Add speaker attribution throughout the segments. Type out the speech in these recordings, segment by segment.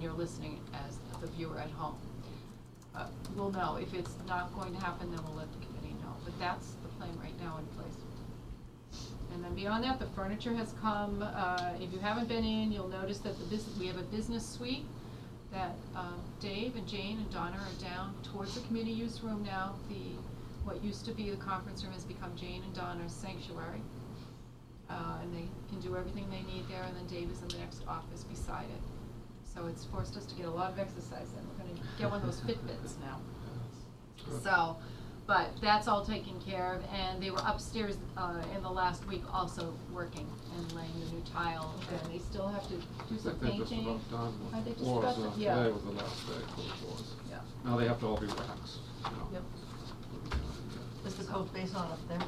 Speaker 1: you're listening as the viewer at home. Uh, We'll know. If it's not going to happen, then we'll let the committee know. But that's the plan right now in place. And then beyond that, the furniture has come. Uh, If you haven't been in, you'll notice that the business, we have a business suite that um, Dave and Jane and Donna are down towards the community use room now. The, what used to be the conference room has become Jane and Donna's sanctuary. Uh, And they can do everything they need there, and then Dave is in the next office beside it. So it's forced us to get a lot of exercise, and we're gonna get one of those Fitbits now. So, but that's all taken care of, and they were upstairs, uh, in the last week also working and laying the new tile, and they still have to do some painting.
Speaker 2: I think they're just about done
Speaker 1: Are
Speaker 2: with
Speaker 1: they
Speaker 2: the
Speaker 1: just
Speaker 2: floors,
Speaker 1: about
Speaker 2: uh,
Speaker 1: to- yeah.
Speaker 2: today was the last day for the floors.
Speaker 1: Yeah.
Speaker 2: Now they have to all be waxed, you know.
Speaker 1: Yep.
Speaker 3: Is the coat base on up there?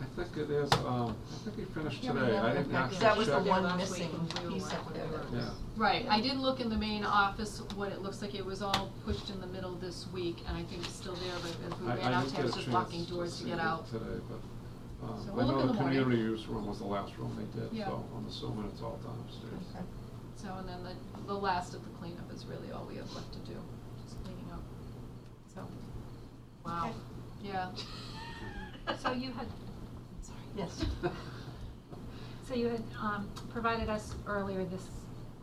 Speaker 2: I think it is, um, I think he finished
Speaker 1: Yeah, we
Speaker 2: today,
Speaker 1: have
Speaker 2: I
Speaker 1: it
Speaker 2: didn't
Speaker 1: back
Speaker 2: actually
Speaker 1: in.
Speaker 2: check.
Speaker 3: That was the
Speaker 1: Yeah,
Speaker 3: one
Speaker 1: last
Speaker 3: missing
Speaker 1: week when we were
Speaker 3: piece up
Speaker 1: out
Speaker 3: there
Speaker 1: there.
Speaker 3: that
Speaker 2: Yeah.
Speaker 3: was.
Speaker 1: Right, I did look in the main office, what it looks like, it was all pushed in the middle this week, and I think it's still there, but as we
Speaker 2: I-
Speaker 1: ran
Speaker 2: I
Speaker 1: out,
Speaker 2: didn't
Speaker 1: I
Speaker 2: get
Speaker 1: was
Speaker 2: a
Speaker 1: just
Speaker 2: chance
Speaker 1: locking doors to
Speaker 2: see
Speaker 1: get
Speaker 2: it
Speaker 1: out.
Speaker 2: Today, but, um,
Speaker 1: So
Speaker 2: I
Speaker 1: we'll look
Speaker 2: know
Speaker 1: in
Speaker 2: the
Speaker 1: the morning.
Speaker 2: community use room was the last room they did,
Speaker 1: Yeah.
Speaker 2: so I'm assuming it's all done upstairs.
Speaker 3: Okay.
Speaker 1: So, and then the, the last of the cleanup is really all we have left to do, just cleaning up, so, wow,
Speaker 3: Okay.
Speaker 1: yeah.
Speaker 4: So you had, sorry.
Speaker 3: Yes.
Speaker 4: So you had um, provided us earlier this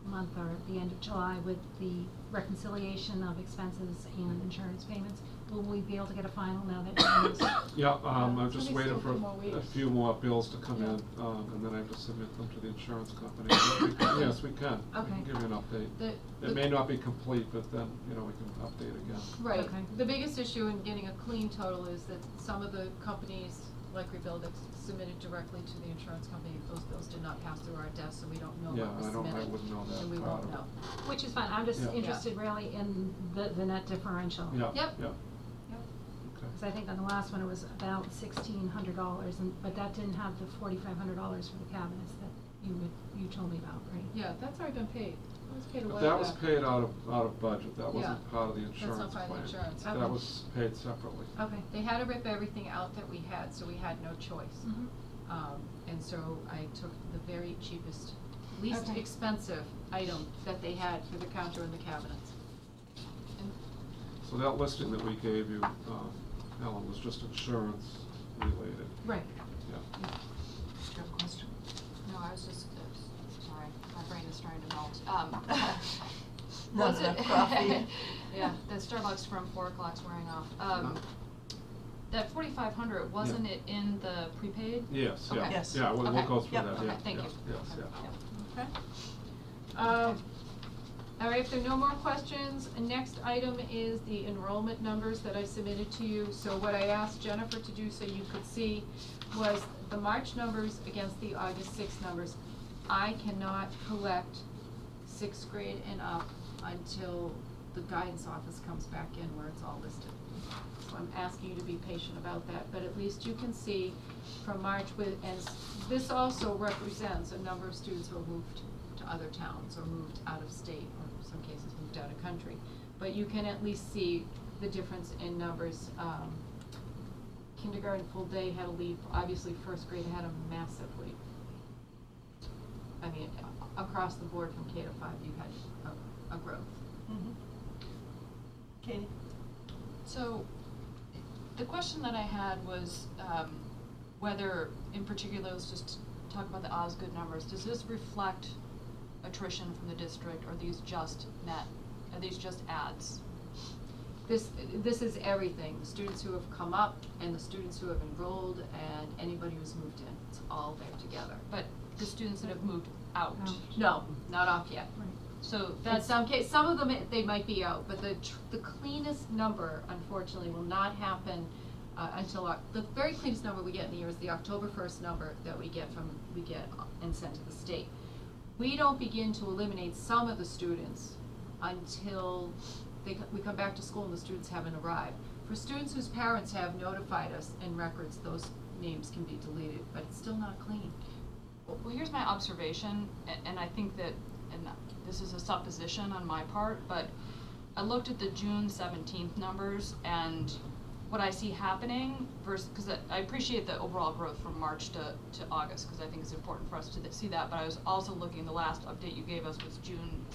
Speaker 4: month or at the end of July with the reconciliation of expenses and insurance payments. Will we be able to get a final now that you
Speaker 2: Yeah, um,
Speaker 1: Yeah,
Speaker 2: I'm just
Speaker 1: somebody's still
Speaker 2: waiting for
Speaker 1: two more
Speaker 2: a
Speaker 1: weeks.
Speaker 2: few more bills to come in,
Speaker 1: Yeah.
Speaker 2: um, and then I have to submit them to the insurance company. But we- Yes, we can, we can
Speaker 4: Okay.
Speaker 2: give you an update.
Speaker 1: The- the-
Speaker 2: It may not be complete, but then, you know, we can update again.
Speaker 1: Right,
Speaker 4: Okay.
Speaker 1: the biggest issue in getting a clean total is that some of the companies, like Rebuild, that submitted directly to the insurance company, those bills did not pass through our desk, so we don't know
Speaker 2: Yeah,
Speaker 1: what was
Speaker 2: I don't,
Speaker 1: submitted.
Speaker 2: I wouldn't know that.
Speaker 1: And we
Speaker 2: part
Speaker 1: won't
Speaker 2: of it.
Speaker 1: know.
Speaker 4: Which is fine, I'm just
Speaker 2: Yeah. Yeah.
Speaker 4: interested really in the, the net differential.
Speaker 2: Yeah, yeah.
Speaker 1: Yep.
Speaker 4: Because I think on the last one, it was about sixteen hundred dollars, and, but that didn't have the forty-five hundred dollars for the cabinets that you would, you told me about, right?
Speaker 1: Yeah, that's already been paid, it was paid a while
Speaker 2: But
Speaker 1: back.
Speaker 2: that was paid out of, out of budget, that
Speaker 1: Yeah.
Speaker 2: wasn't part of the
Speaker 1: That's not part
Speaker 2: insurance plan.
Speaker 1: of the insurance.
Speaker 4: Okay.
Speaker 2: That was paid separately.
Speaker 4: Okay.
Speaker 1: They had to rip everything out that we had, so we had no choice.
Speaker 4: Mhm.
Speaker 1: Um, and so I took the very cheapest, least
Speaker 4: Okay.
Speaker 1: expensive item that they had for the counter and the cabinets. And
Speaker 2: So that listing that we gave you, um, Ellen, was just insurance related.
Speaker 4: Right.
Speaker 2: Yeah.
Speaker 3: Do you have a question?
Speaker 5: No, I was just, uh, sorry, my brain is starting to melt. Um,
Speaker 3: Not
Speaker 5: was
Speaker 3: enough
Speaker 5: it-
Speaker 3: coffee.
Speaker 5: Yeah, the Starbucks from four o'clock's wearing off. Um,
Speaker 2: Uh-huh.
Speaker 5: that forty-five hundred, wasn't it in the prepaid?
Speaker 2: Yes, yeah,
Speaker 5: Okay.
Speaker 3: Yes.
Speaker 2: yeah, we'll, we'll
Speaker 5: Okay.
Speaker 2: go through
Speaker 3: Yep.
Speaker 2: that, yeah,
Speaker 5: Okay, thank
Speaker 2: yeah,
Speaker 5: you.
Speaker 2: yes,
Speaker 5: Okay,
Speaker 2: yeah.
Speaker 5: yep.
Speaker 1: Okay. Um, all right, if there are no more questions, next item is the enrollment numbers that I submitted to you. So what I asked Jennifer to do so you could see was the March numbers against the August sixth numbers. I cannot collect sixth grade and up until the guidance office comes back in where it's all listed. So I'm asking you to be patient about that, but at least you can see from March with, and s- this also represents a number of students who have moved to other towns or moved out of state, or in some cases moved out of country. But you can at least see the difference in numbers, um, kindergarten full day had a leap, obviously first grade had a massive leap. I mean, a- across the board from K to five, you had a, a growth.
Speaker 3: Mhm. Katie?
Speaker 5: So, the question that I had was, um, whether, in particular, let's just talk about the Osgood numbers, does this reflect attrition from the district, or are these just net, are these just ads?
Speaker 1: This, this is everything, the students who have come up and the students who have enrolled and anybody who's moved in, it's all there together.
Speaker 5: But the students that have moved out,
Speaker 4: Out.
Speaker 1: No, not off yet.
Speaker 4: Right.
Speaker 5: so
Speaker 1: In
Speaker 5: that's.
Speaker 1: some case, some of them, it- they might be out, but the, tr- the cleanest number, unfortunately, will not happen uh, until, Oc- the very cleanest number we get in the year is the October first number that we get from, we get and sent to the state. We don't begin to eliminate some of the students until they, co- we come back to school and the students haven't arrived. For students whose parents have notified us in records, those names can be deleted, but it's still not clean.
Speaker 5: Well, here's my observation, a- and I think that, and this is a supposition on my part, but I looked at the June seventeenth numbers and what I see happening versus, because I appreciate the overall growth from March to, to August, because I think it's important for us to th- see that, but I was also looking, the last update you gave us was June